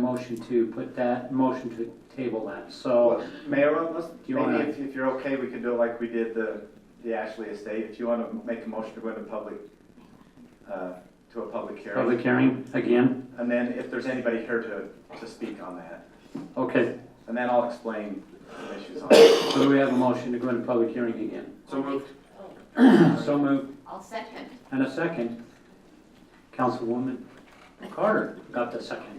motion to put that, motion to table that, so. Mayor, unless, you maybe wanna- if, if you're okay, we could do it like we did the, the Ashley Estate. If you want to make a motion to go into public, uh, to a public hearing. Public hearing again, And then if there's anybody here to, to speak on that, okay, and then I'll explain the issues on it. so do we have a motion to go into public hearing again? So moved. So moved, I'll second. and a second. Councilwoman Carter got the second.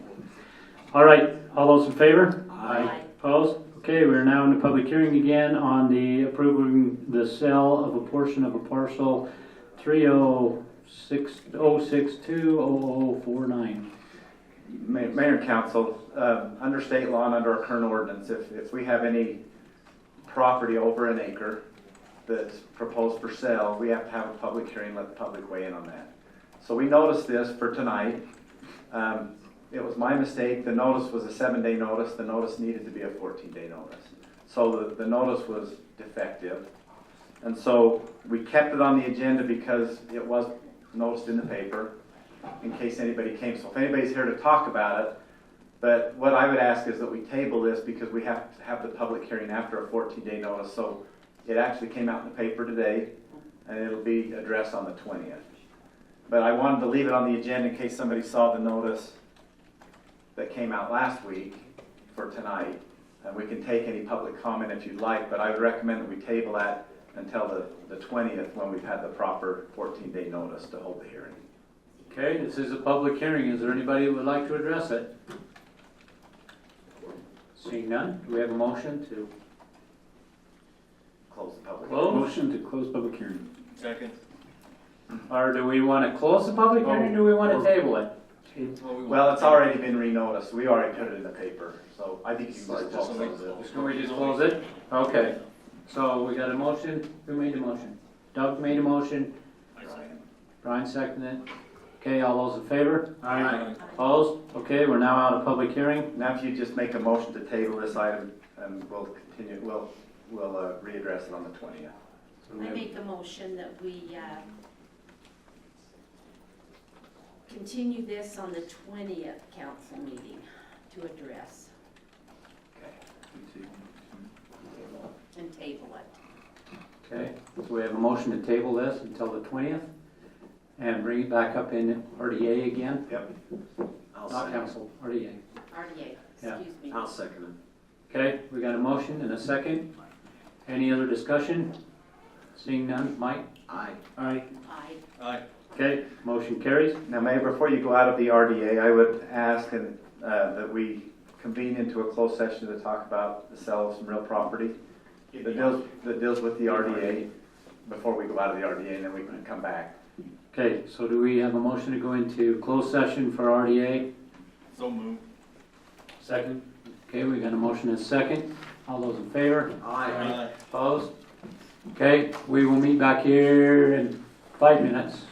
All right, all those in favor? Aye. Opposed? Okay, we're now in the public hearing again on the approving the sale of a portion of a parcel 306620049. Ma- Mayor and council, uh, under state law and under our current ordinance, if, if we have any property over an acre that's proposed for sale, we have to have a public hearing, let the public weigh in on that. So we noticed this for tonight. Um, It was my mistake, the notice was a seven-day notice, the notice needed to be a fourteen-day notice. So the, the notice was defective. And so we kept it on the agenda because it was noticed in the paper in case anybody came. So if anybody's here to talk about it, but what I would ask is that we table this because we have to have the public hearing after a fourteen-day notice. So it actually came out in the paper today and it'll be addressed on the twentieth. But I wanted to leave it on the agenda in case somebody saw the notice that came out last week for tonight. And we can take any public comment if you'd like, but I would recommend that we table that until the, the twentieth when we've had the proper fourteen-day notice to hold the hearing. Okay, this is a public hearing. Is there anybody who would like to address it? Seeing none, do we have a motion to? Close the public. Motion to close public hearing. Second. Or do we want to close the public hearing or do we want to table it? Well, it's already been re-noticed, we already put it in the paper, so I think you Right, can just close just like- it. Can we just close it? Okay, so we got a motion. Who made the motion? Doug made a motion. Brian seconded it. Okay, all those in favor? Aye. Opposed? Okay, we're now out of public hearing. Now, if you just make a motion to table this item, and we'll continue, we'll, we'll uh, readdress it on the twentieth. So we I have- make a motion that we uh, continue this on the 20th council meeting to address and table it. Okay, so we have a motion to table this until the twentieth and bring it back up in RDA again. Yep. I'll Not second. council, RDA. RDA, Yeah. excuse me. I'll second it. Okay, we got a motion and a second. Any other discussion? Seeing none, Mike? Aye. Aye. Aye. Aye. Okay, motion carries. Now, Mayor, before you go out of the RDA, I would ask and, uh, that we convene into a closed session to talk about the sale of some real property that deals, that deals with the RDA, before we go out of the RDA, and then we can come back. Okay, so do we have a motion to go into closed session for RDA? So moved. Second. Okay, we got a motion and a second. All those in favor? Opposed? Okay, we will meet back here in five minutes.